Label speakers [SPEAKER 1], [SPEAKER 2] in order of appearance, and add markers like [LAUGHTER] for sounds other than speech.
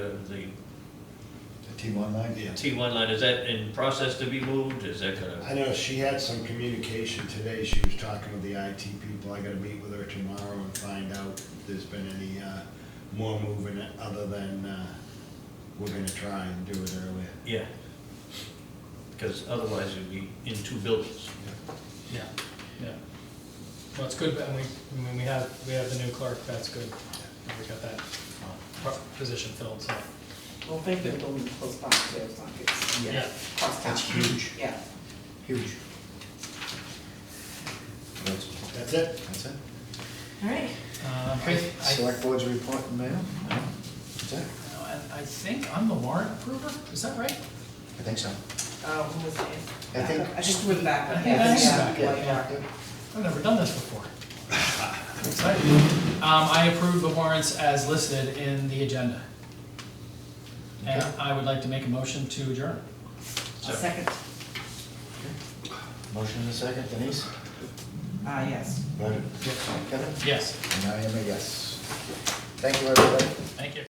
[SPEAKER 1] The
[SPEAKER 2] The T one line? Yeah.
[SPEAKER 1] T1 line, is that in process to be moved? Is that gonna,
[SPEAKER 3] I know she had some communication today, she was talking with the IT people, I gotta meet with her tomorrow and find out if there's been any, uh, more movement other than, uh, we're gonna try and do it earlier.
[SPEAKER 1] yeah. Because otherwise it'd be in two buildings.
[SPEAKER 4] Yeah, yeah. Well, it's good, and we, I mean, we have, we have the new clerk, that's good. And We got that uh, pro- position filled, so.
[SPEAKER 5] Well, thank you, we'll post downstairs like it's
[SPEAKER 4] Yeah.
[SPEAKER 5] cross town.
[SPEAKER 2] That's huge.
[SPEAKER 5] Yeah.
[SPEAKER 2] Huge. That's
[SPEAKER 3] That's it?
[SPEAKER 2] that's it.
[SPEAKER 5] All right.
[SPEAKER 4] Uh, I, I,
[SPEAKER 2] Select boards report and mail? No? That's it?
[SPEAKER 4] and I think I'm the warrant approver, is that right?
[SPEAKER 2] I think so.
[SPEAKER 5] Uh, who was it?
[SPEAKER 2] I think-
[SPEAKER 5] I just went back.
[SPEAKER 4] I think that's back,
[SPEAKER 5] yeah.
[SPEAKER 4] I've never done this [LAUGHS] before. I'm Excited. Um, I approve the warrants as listed in the agenda. And
[SPEAKER 2] Okay.
[SPEAKER 4] I would like to make a motion to adjourn.
[SPEAKER 5] A second.
[SPEAKER 2] Motion in a second, Denise?
[SPEAKER 5] Ah, yes.
[SPEAKER 2] Voted. Kevin?
[SPEAKER 4] Yes,
[SPEAKER 2] And I am a yes. Thank you, everybody.
[SPEAKER 4] thank you.